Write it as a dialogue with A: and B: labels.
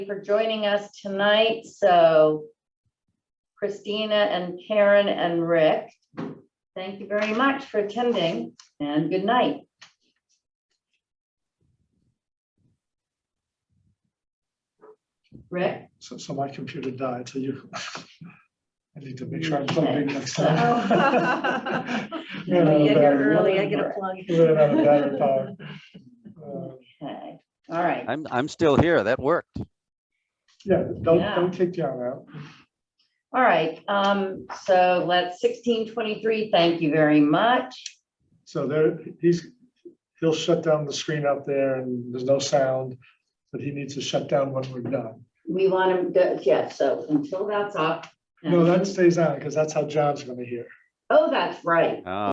A: for joining us tonight. So Christina and Karen and Rick, thank you very much for attending and good night. Rick?
B: So, so my computer died, so you. I need to make sure I'm plugging next time.
A: Okay.
B: We're gonna have a
A: Yeah,
B: better-
A: early, I Oh. get a
C: plug.
B: we're gonna have a better time. Uh,
A: All right.
D: I'm, I'm still here. That worked.
B: Yeah, don't,
A: Yeah.
B: don't take John out.
A: All right, um, so let's sixteen twenty-three, thank you very much.
B: So there, he's, he'll shut down the screen up there and there's no sound, but he needs to shut down when we're done.
A: We want to, yeah, so until that's up. Mm-hmm.
B: No, that stays on because that's how John's gonna hear.
A: Oh, that's right.
D: Uh,